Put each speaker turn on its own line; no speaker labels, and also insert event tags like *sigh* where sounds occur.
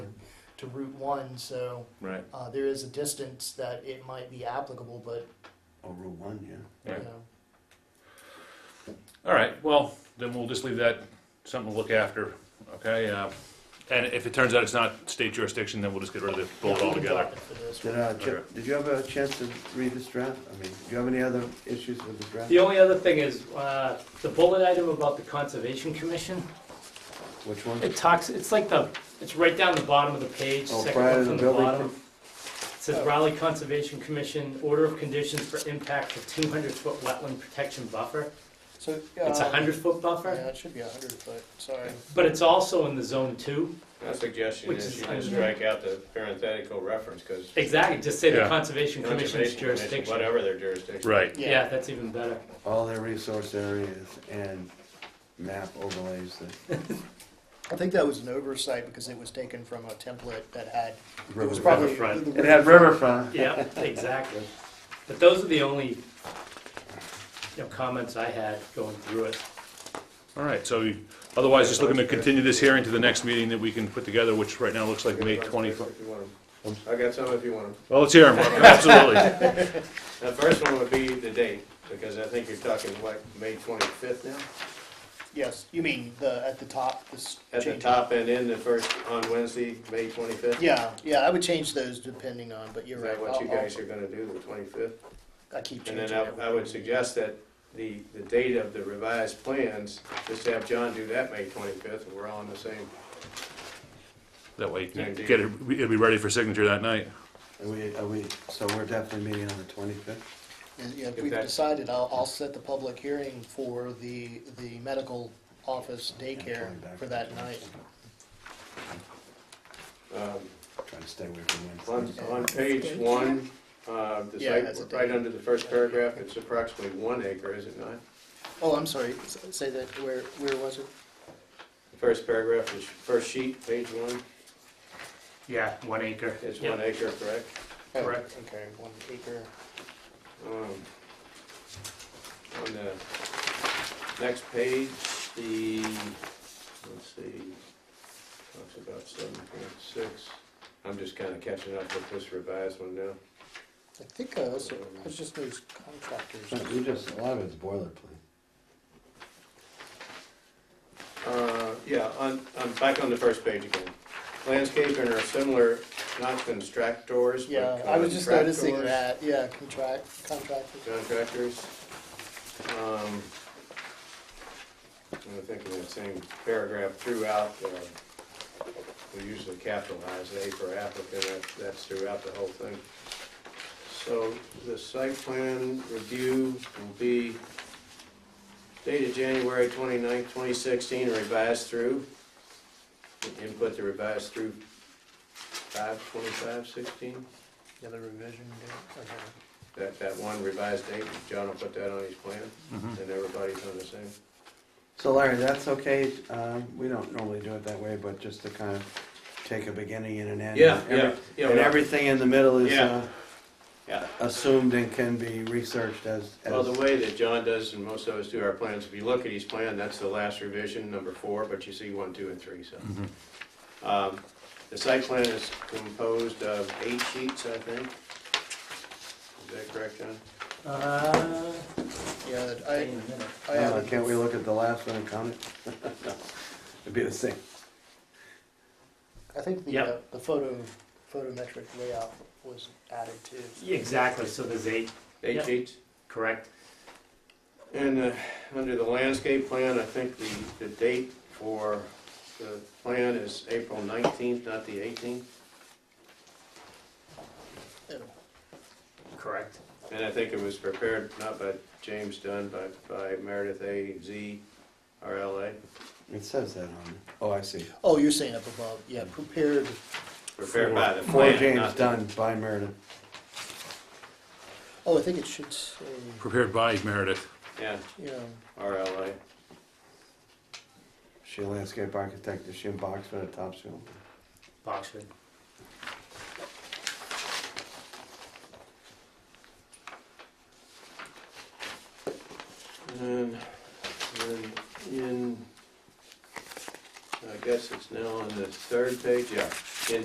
to Route One, so
Right.
uh, there is a distance that it might be applicable, but,
Or Route One, yeah.
you
Right.
know.
All right, well, then we'll just leave that something to look after, okay? Uh, And if it turns out it's not state jurisdiction, then we'll just get rid of the
Yeah, we
bullet
can
altogether.
drop it for this
Did,
one.
uh, Chip, did you have a chance to read this draft? I mean, do you have any other issues with the draft?
The only other thing is, uh, the bullet item about the Conservation Commission,
Which one?
it talks, it's like the, it's right down the bottom of the page,
Oh,
second
prior
one
to the
from the
building
bottom. It says Raleigh Conservation Commission, order of conditions for impact of two hundred foot wetland protection buffer.
So,
It's a
um,
hundred foot
Yeah,
buffer,
it should be a hundred foot, sorry.
but it's also in the zone two.
My suggestion
Which
is
is
you
under-
just strike out the parenthetical reference, because
Exactly, just say the
Yeah.
Conservation Commission's
Conservation Commission,
jurisdiction.
whatever their jurisdiction.
Right,
Yeah, that's even
*laughs*
better.
All their resource areas and map overlays that.
I think that was an oversight because it was taken from a template that had, it was
River-
probably.
Riverfront.
It had riverfront.
Yeah, exactly. But those are the only, you know, comments I had going through it.
all right, so you- otherwise, just looking to continue this hearing to the next meeting that we can put together, which right now looks like May 25th.
If you want 'em. I got some if you want them.
Well,
*laughs*
let's hear 'em, absolutely.
The first one would be the date, because I think you're talking, what, May twenty-fifth now?
Yes, you mean the, at the top, this
At the
change.
top and in the first, on Wednesday, May twenty-fifth?
Yeah, yeah, I would change those depending on, but you're
Is
right.
that what
I'll-
you
I'll-
guys are gonna do, the twenty-fifth?
I keep
And
changing.
then I, I
everything.
would suggest that the, the date of the revised plans, just have John do that May twenty-fifth, and we're all on the same.
That way, you can get it, it'll be ready for signature that night.
Are we, are we, so we're definitely meeting on the twenty-fifth?
And, yeah, If
If
we've
that-
decided, I'll, I'll set the public hearing for the, the medical office daycare
Going back
for
to
that
the
night.
Um,
Trying to stay away from
On,
Wednesday.
on page one, uh, the
Yeah, that's a
site,
date.
right under the first paragraph, it's approximately one acre, is it not?
Oh, I'm sorry, S- say that, where, where was it?
The First paragraph, is first sheet, page one,
Yeah, one acre.
it's
Yeah.
one acre, correct?
Oh,
Correct.
Okay, one acre.
Um, On the next page, the, let's see, talks about seven point six. I'm just kinda catching up with this revised one now.
I think, uh, that's, that's just those contractors.
We just, a lot of it's boilerplate.
Uh, Yeah, on, on, back on the first page again. Landscaping are similar, not constructors,
Yeah,
but
I
uh,
was just noticing
contractors.
that, yeah, contract, contractors.
Contractors. Um, I think in that same paragraph throughout, uh, we usually capitalize A for applicant, that- that's throughout the whole thing. So the site plan review will be dated January 29th, 2016, revised through. Input the revised through 5/25/16.
Yeah, the revision date, okay.
That, that one revised date, John will put that on his plan,
Mm-hmm.
and everybody's on the same.
So Larry, that's okay, um, we don't normally do it that way, but just to kind of take a beginning and an end. and every-
yeah.
And everything in the middle is, uh,
Yeah. Yeah.
assumed and can be researched as,
Well, the
as,
way that John does, and most of us do our plans, if you look at his plan, that's the last revision, number four, but you see one, two, and three, so.
Mm-hmm.
Um, The site plan is composed of eight sheets, I think. Is that correct, John?
Uh,
Yeah,
hang
I,
on a minute.
I
uh,
added
can't we look at the last one and count it? *laughs* It'd be the same.
I think the,
Yep.
uh, the photo, photometric layout was added too.
Exactly, so there's eight,
Eight
Yeah.
sheets?
correct?
And uh, under the landscape plan, I think the, the date for the plan is April 19th, not the 18th.
Correct.
And I think it was prepared not by James Dunn, but by Meredith A. Z. R. L. A.
It says that on it. Oh, I see.
Oh, you're saying up above, yeah, prepared,
Prepared by the
For
plan.
James
not-
Dunn by Meredith.
oh, I think it should say,
Prepared by Meredith.
Yeah,
yeah,
R. L. A.
She a landscape architect, is she in Boxford or Topsfield?
Boxwood.
And then in, I guess it's now on the third page, yeah.